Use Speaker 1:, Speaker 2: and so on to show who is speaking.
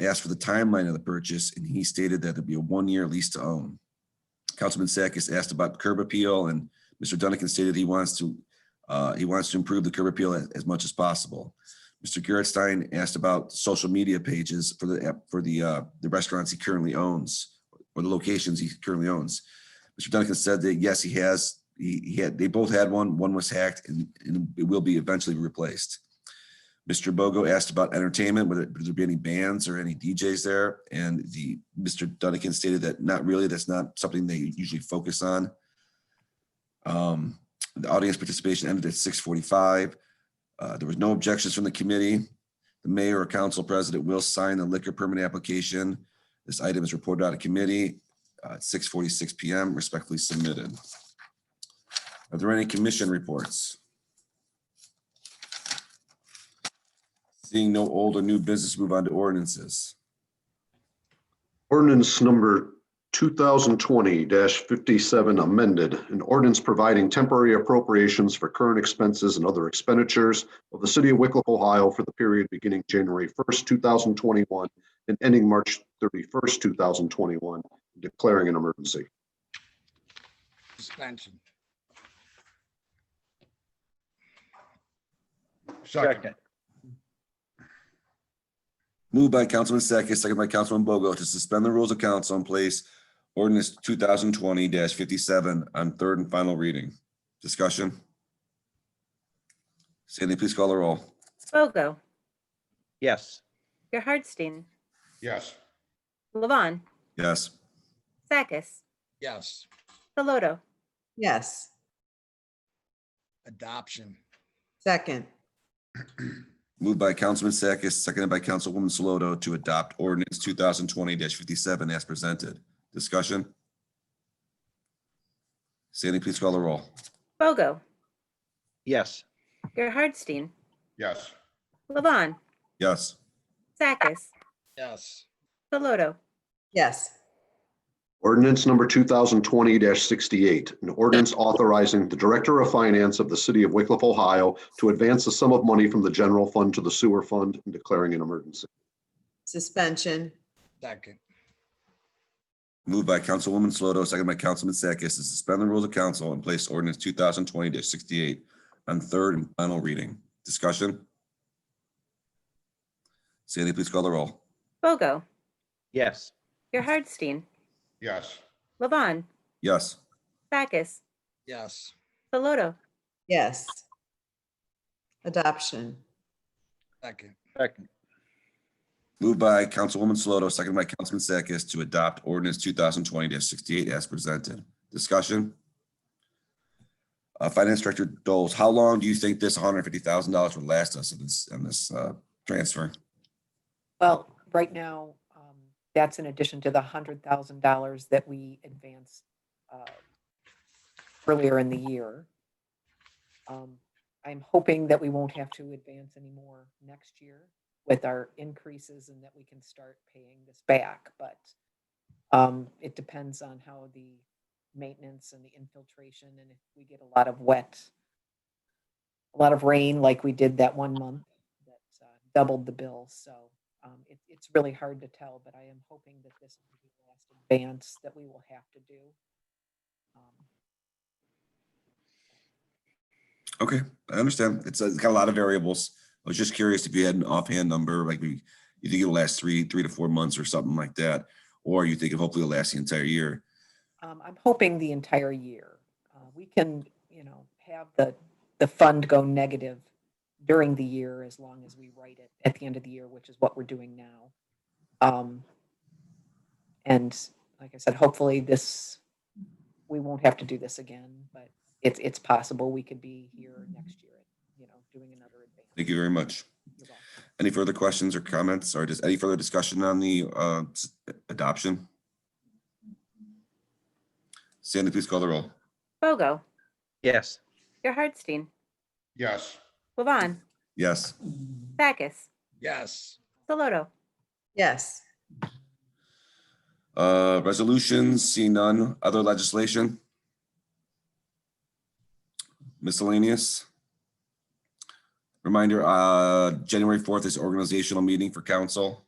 Speaker 1: I asked for the timeline of the purchase, and he stated that it'd be a one-year lease to own. Councilman Sakis asked about curb appeal, and Mr. Dunneken stated he wants to, uh, he wants to improve the curb appeal as, as much as possible. Mr. Gerstein asked about social media pages for the, app- for the, uh, the restaurants he currently owns, or the locations he currently owns. Mr. Dunneken said that, yes, he has, he, he had, they both had one, one was hacked, and, and it will be eventually replaced. Mr. Bogo asked about entertainment, whether would there be any bands or any DJs there? And the, Mr. Dunneken stated that not really, that's not something they usually focus on. Um, the audience participation ended at six forty-five. Uh, there was no objections from the committee. The mayor or council president will sign the liquor permit application. This item is reported out of committee, uh, at six forty-six PM, respectfully submitted. Are there any commission reports? Seeing no old or new business, move on to ordinances.
Speaker 2: Ordinance number two thousand twenty fifty-seven amended, an ordinance providing temporary appropriations for current expenses and other expenditures of the city of Wickliffe, Ohio for the period beginning January first, two thousand twenty-one and ending March thirty-first, two thousand twenty-one, declaring an emergency.
Speaker 3: Suspension.
Speaker 4: Second.
Speaker 1: Moved by Councilman Sakis, second by Councilman Bogo to suspend the rules of council and place ordinance two thousand twenty fifty-seven on third and final reading. Discussion? Sandy, please call the roll.
Speaker 5: Bogo,
Speaker 4: Yes.
Speaker 5: Gerhardstein,
Speaker 3: Yes.
Speaker 5: Levon,
Speaker 1: Yes.
Speaker 5: Sakis,
Speaker 3: Yes,
Speaker 5: Deloto,
Speaker 6: Yes,
Speaker 3: adoption.
Speaker 6: second,
Speaker 1: Moved by Councilman Sakis, seconded by Councilwoman Saloto to adopt ordinance two thousand twenty fifty-seven as presented. Discussion? Sandy, please call the roll.
Speaker 5: Bogo,
Speaker 4: Yes.
Speaker 5: Gerhardstein,
Speaker 3: Yes.
Speaker 5: Levon,
Speaker 1: Yes.
Speaker 5: Sakis,
Speaker 3: Yes,
Speaker 5: Deloto,
Speaker 6: yes,
Speaker 2: Ordinance number two thousand twenty sixty-eight, an ordinance authorizing the Director of Finance of the city of Wickliffe, Ohio to advance a sum of money from the general fund to the sewer fund and declaring an emergency.
Speaker 6: suspension,
Speaker 3: second.
Speaker 1: Moved by Councilwoman Sloto, second by Councilman Sakis, to suspend the rules of council and place ordinance two thousand twenty sixty-eight on third and final reading. Discussion? Sandy, please call the roll.
Speaker 5: Bogo,
Speaker 4: Yes.
Speaker 5: Gerhardstein,
Speaker 3: Yes.
Speaker 5: Levon,
Speaker 1: Yes.
Speaker 5: Sakis,
Speaker 3: Yes,
Speaker 5: Deloto,
Speaker 6: yes. Adoption,
Speaker 3: second.
Speaker 4: Second.
Speaker 1: Moved by Councilwoman Sloto, second by Councilman Sakis, to adopt ordinance two thousand twenty sixty-eight as presented. Discussion? Uh, Finance Director Doles, how long do you think this one hundred fifty thousand dollars would last us in this, in this, uh, transfer?
Speaker 7: Well, right now, um, that's in addition to the hundred thousand dollars that we advanced uh, earlier in the year. Um, I'm hoping that we won't have to advance anymore next year with our increases and that we can start paying this back, but um, it depends on how the maintenance and the infiltration and if we get a lot of wet, a lot of rain like we did that one month that uh, doubled the bill, so um, it, it's really hard to tell, but I am hoping that this will be the last advance that we will have to do. Um,
Speaker 1: Okay, I understand. It's, uh, it's got a lot of variables. I was just curious if you had an offhand number, like we, you think it'll last three, three to four months or something like that? Or you think it hopefully it'll last the entire year?
Speaker 7: Um, I'm hoping the entire year. Uh, we can, you know, have the, the fund go negative during the year as long as we write it at the end of the year, which is what we're doing now. Um, and like I said, hopefully this, we won't have to do this again, but it's, it's possible we could be here next year, you know, doing another advance.
Speaker 1: Thank you very much.
Speaker 7: You're welcome.
Speaker 1: Any further questions or comments or just any further discussion on the, uh, s- adoption? Sandy, please call the roll.
Speaker 5: Bogo,
Speaker 4: Yes.
Speaker 5: Gerhardstein,
Speaker 3: Yes.
Speaker 5: Levon,
Speaker 1: Yes.
Speaker 5: Sakis,
Speaker 3: Yes,
Speaker 5: Deloto,
Speaker 6: yes,
Speaker 1: Uh, resolutions, see none. Other legislation? Miscellaneous? Reminder, uh, January fourth is organizational meeting for council.